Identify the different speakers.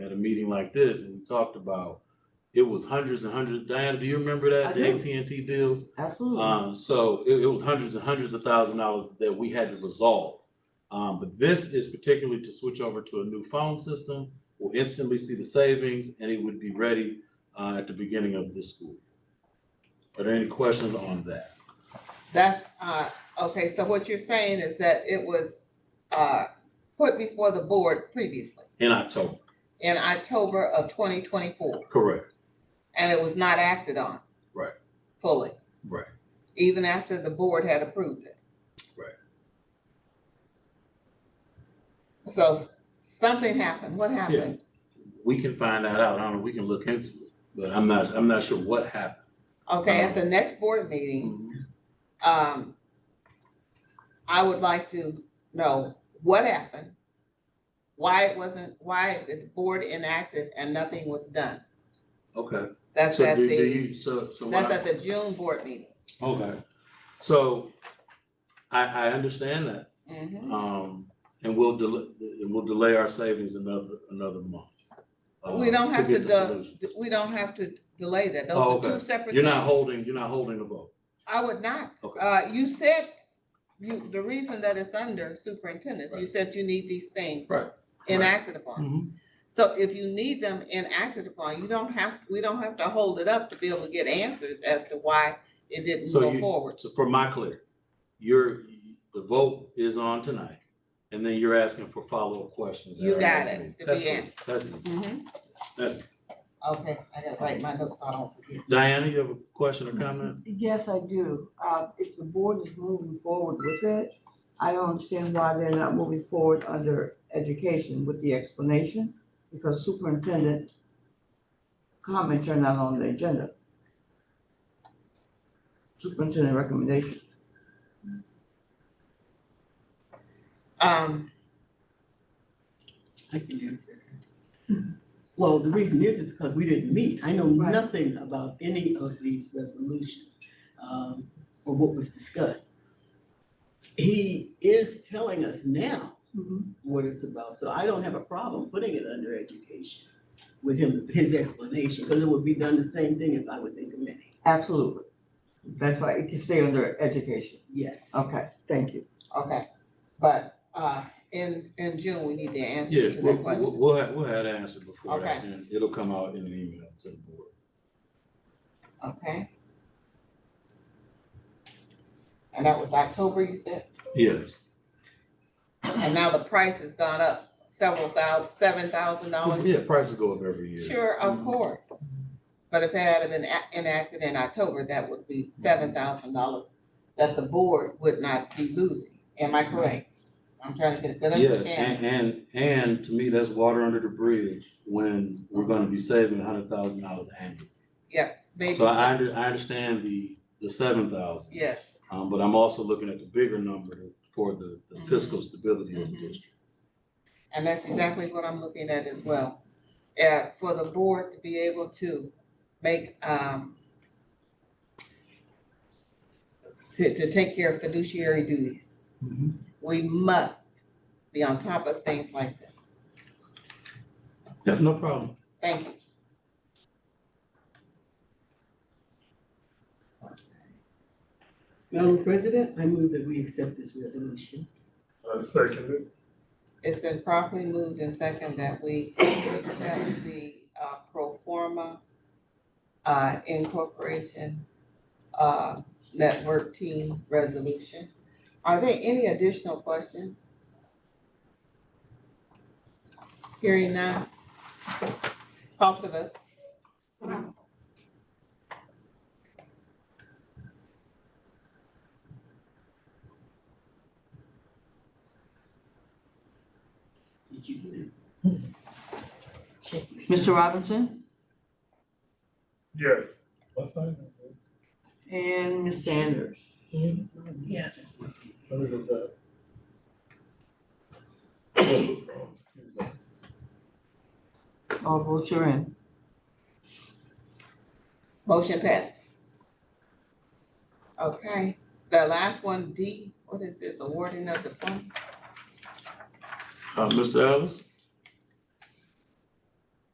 Speaker 1: at a meeting like this and we talked about, it was hundreds and hundreds, Diana, do you remember that,
Speaker 2: I
Speaker 1: the
Speaker 2: do. Mm-hmm.
Speaker 1: AT&T deals?
Speaker 2: Absolutely.
Speaker 1: Uh, so it, it was hundreds and hundreds of thousand dollars that we had to resolve. Um, but this is particularly to switch over to a new phone system. We'll instantly see the savings and it would be ready, uh, at the beginning of this school. Are there any questions on that?
Speaker 3: That's, uh, okay, so what you're saying is that it was, uh, put before the board previously
Speaker 1: In October,
Speaker 3: in October of twenty twenty-four,
Speaker 1: correct,
Speaker 3: and it was not acted on.
Speaker 1: Right.
Speaker 3: Fully,
Speaker 1: right.
Speaker 3: even after the board had approved it.
Speaker 1: Right.
Speaker 3: So s- something happened, what happened?
Speaker 1: We can find that out, I don't know, we can look into it, but I'm not, I'm not sure what happened.
Speaker 3: Okay, at the next board meeting, um, I would like to know what happened, why it wasn't, why the board enacted and nothing was done.
Speaker 1: Okay.
Speaker 3: That's
Speaker 1: So
Speaker 3: at
Speaker 1: do- do
Speaker 3: the,
Speaker 1: you- So, so. what
Speaker 3: that's
Speaker 1: I-
Speaker 3: at the June board meeting.
Speaker 1: Okay. So I, I understand that,
Speaker 3: Mhm.
Speaker 1: um, and we'll delay, we'll delay our savings another, another month. uh,
Speaker 3: We don't have to,
Speaker 1: get the
Speaker 3: del-
Speaker 1: solution.
Speaker 3: we don't have to delay that.
Speaker 1: Oh,
Speaker 3: Those are
Speaker 1: okay.
Speaker 3: two separate
Speaker 1: You're not
Speaker 3: things.
Speaker 1: holding, you're not holding a vote.
Speaker 3: I would not.
Speaker 1: Okay.
Speaker 3: Uh, you said, you, the reason that it's under superintendents, you
Speaker 1: Right.
Speaker 3: said you need these things
Speaker 1: Right.
Speaker 3: enacted upon. So if you need them enacted upon, you don't have, we don't have to hold it up to be able to get answers as to why it didn't
Speaker 1: So
Speaker 3: go
Speaker 1: you-
Speaker 3: forward.
Speaker 1: So for my clear, you're, the vote is on tonight, and then you're asking for follow-up questions. at
Speaker 3: You
Speaker 1: our
Speaker 3: got
Speaker 1: next
Speaker 3: it,
Speaker 1: meeting.
Speaker 3: to be
Speaker 1: That's easy.
Speaker 3: answered.
Speaker 1: That's, easy.
Speaker 3: Mhm.
Speaker 1: that's, easy.
Speaker 3: Okay, I gotta write my notes, so I don't forget.
Speaker 1: Diana, you have a question or
Speaker 3: Mm-hmm.
Speaker 1: comment?
Speaker 2: Yes, I do. Uh, if the board is moving forward with it, I don't understand why they're not moving forward under education with the explanation, because superintendent comments are not on the agenda. Superintendent recommendation.
Speaker 3: Um,
Speaker 4: I can answer. Hmm. Well, the reason is, it's because we didn't meet. I know
Speaker 2: Right.
Speaker 4: nothing about any of these resolutions, um, or what was discussed. He is telling us now
Speaker 2: Mm-hmm.
Speaker 4: what it's about, so I don't have a problem putting it under education with him, his explanation, because it would be done the same thing if I was in committee.
Speaker 2: Absolutely. That's why it can stay under education.
Speaker 4: Yes.
Speaker 2: Okay, thank you.
Speaker 3: okay, but, uh, in, in June, we need the answers
Speaker 1: Yes,
Speaker 3: to
Speaker 1: we'll,
Speaker 3: that
Speaker 1: we'll,
Speaker 3: question.
Speaker 1: we'll have, we'll have that answered before that, and it'll come out in an email to the board.
Speaker 3: Okay? And that was October, you said?
Speaker 1: Yes,
Speaker 3: And now the price has gone up several thousand, seven thousand dollars.
Speaker 1: yeah, prices go up every year.
Speaker 3: Sure, of
Speaker 1: Mhm.
Speaker 3: course. But if it had been a- enacted in October, that would be seven thousand dollars that the board would not be losing. Am I correct? I'm trying to get a good
Speaker 1: Yes, and,
Speaker 3: understanding.
Speaker 1: and, and to me, that's water under the bridge when we're gonna be saving a hundred thousand dollars annually.
Speaker 3: Maybe
Speaker 1: So I,
Speaker 3: some-
Speaker 1: under- I understand the, the seven thousand.
Speaker 3: Yes,
Speaker 1: Um, but I'm also looking at the bigger number for the the fiscal stability of the
Speaker 3: Mhm.
Speaker 1: district.
Speaker 3: and that's exactly what I'm looking at as well. Uh, for the board to be able to make, um, to, to take care of fiduciary duties. We must be on top of things like this.
Speaker 1: Yeah, no problem.
Speaker 3: Thank you.
Speaker 4: Madam President, I move that we accept this resolution.
Speaker 5: I second it.
Speaker 3: It's been properly moved and second that we accept the uh pro forma uh incorporation uh network team resolution. Are there any additional questions? Hearing none. Call for the vote.
Speaker 4: Did you do that?
Speaker 2: Mr. Robinson
Speaker 5: Yes. What sign is it?
Speaker 2: and Ms. Sanders.
Speaker 4: Yes.
Speaker 5: Let me look that. Excuse me.
Speaker 2: All votes are in.
Speaker 3: Motion passes. Okay, the last one, D, what is this, awarding of the funds?
Speaker 1: Uh, Mr. Ellis,